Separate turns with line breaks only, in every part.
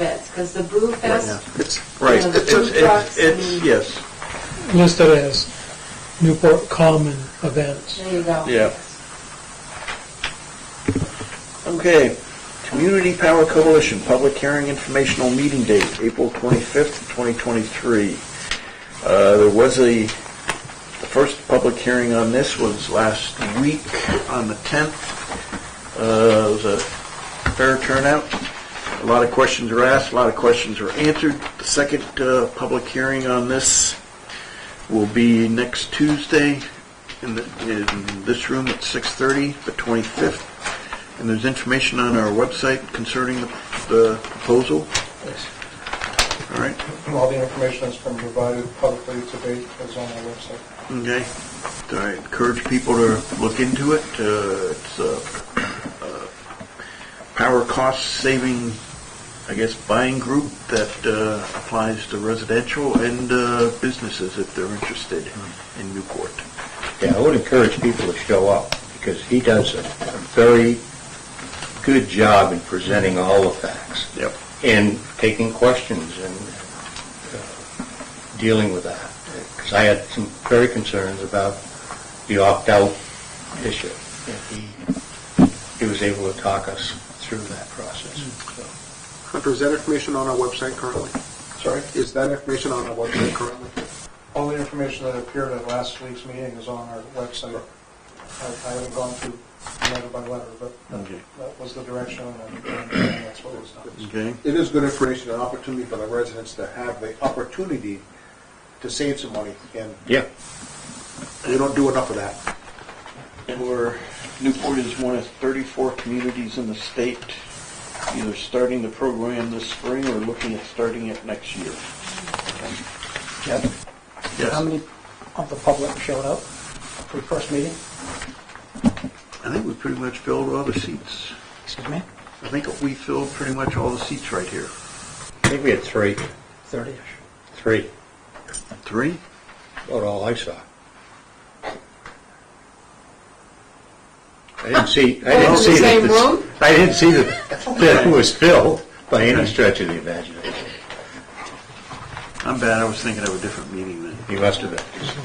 events, because the Boo Fest,
Right,
Yeah, the
it's, just-
food trucks
it's, it's,
and-
yes,
listed as Newport Common events.
there you go.
Yeah. okay. Community Power Coalition, public hearing informational meeting date, April twenty-fifth, twenty twenty-three. Uh, there was a, the first public hearing on this was last week on the tenth. Uh, it was a fair turnout. A lot of questions were asked, a lot of questions were answered. The second, uh, public hearing on this will be next Tuesday in, the, in this room at 6:30, the 25th. And there's information on our website concerning the, the proposal. All right,
All the information that's been provided publicly to date is on our website.
okay. So I encourage people to look into it. Uh, it's a, uh power cost saving, I guess, buying group that uh, applies to residential and uh, businesses if they're interested in Newport.
Yeah, I would encourage people to show up, because he does a a very good job in presenting all the facts.
Yep.
And taking questions and uh, dealing with that. Because I had some very concerns about the opt-out issue. And he- He was able to talk us through that process. So,
Hunter, is that information on our website currently?
Sorry?
Is that information on our website currently?
All the information that appeared at last week's meeting is on our website. I I haven't gone through letter by letter, but
Okay.
that was the direction, and and that's what was done.
Okay.
It is good information and opportunity for the residents to have the opportunity to save some money, and
Yeah.
we don't do enough of that.
And we're, Newport is one of 34 communities in the state either starting the program this spring or looking at starting it next year.
How
Yes,
many of the public showed up for the first meeting?
I think we pretty much filled all the seats.
Excuse me?
I think we filled pretty much all the seats right here.
I think we had three,
Thirty-ish.
three,
Three?
about all I saw. I didn't see, I
in
didn't
the
see that
same
this-
room?
I didn't see that, that it was filled by any stretch of the imagination.
I'm bad, I was thinking of a different meeting then.
You must have been.
Is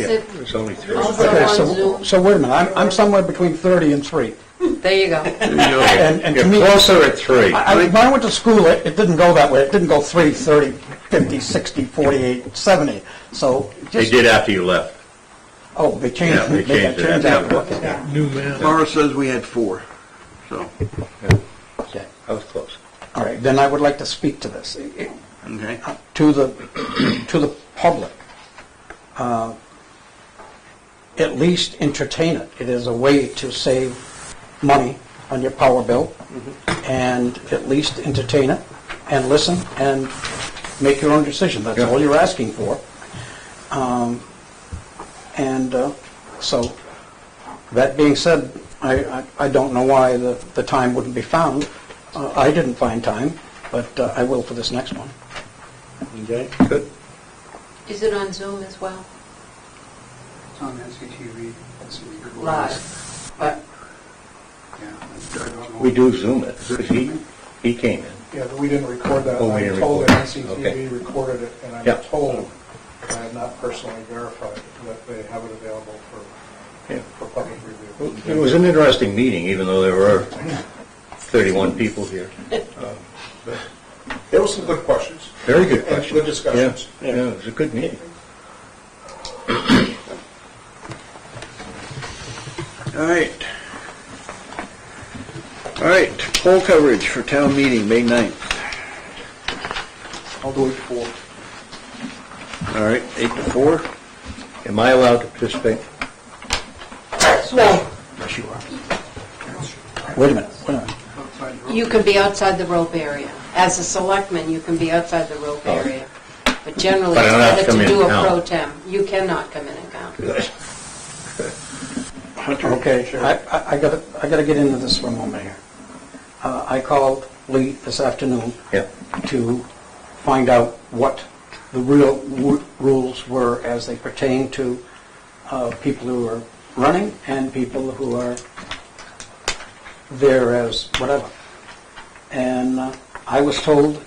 Yeah,
it,
was only three.
Also-
Okay,
on
so,
Zoom.
so wait a minute, I'm, I'm somewhere between thirty and three.
there you go.
There you go.
And, and to
You're
me,
closer at three.
I, I- when I went to school, it, it didn't go that way. It didn't go three, thirty, fifty, sixty, forty-eight, seventy. So
They
just,
did after you left.
oh, they
Yeah,
changed,
they
they
changed it.
changed that. Okay.
Yeah.
New map.
Mara says we had four, so,
Yeah, I was close.
All right, then I would like to speak to this, eh,
okay.
eh, to the, to the public. Uh, At least entertain it. It is a way to save money on your power bill, and at least entertain it, and listen, and make your own decision. That's
Yeah.
all you're asking for. Um, And uh, so, that being said, I, I- I don't know why the, the time wouldn't be found. Uh, I didn't find time, but uh, I will for this next one.
Okay.
Good.
Is it on Zoom as well?
It's on NCTV. It's in your voice.
Live, but
Yeah.
We do Zoom it. He, he came in.
Yeah, but we didn't record that.
Oh, we
I'm
didn't
told
record
that
it. Okay.
NCTV recorded it, and
Yeah.
I'm told, I have not personally verified, that they have it available for,
Yeah.
for public review.
It was an interesting meeting, even though there were 31 people here.
There were some good questions.
Very good
And
question.
good discussions.
Yeah, yeah, it was a good meeting.
All right. All right, poll coverage for town meeting, May 9th.
I'll do it for.
All right, eight to four?
Am I allowed to participate?
no,
Yes, you are.
Wait a minute, wait a minute.
you can be outside the rope area. As a selectman, you can be outside the rope
Oh.
area. But generally,
But I don't have
it's
to come
better to do a
in and count.
pro tem. You cannot come in and count.
Hunter?
Okay, I, I- I gotta, I gotta get into this for a moment here. Uh, I called Lee this afternoon.
Yeah.
To find out what the real ru- rules were as they pertain to, uh, people who are running and people who are there as whatever. And uh, I was told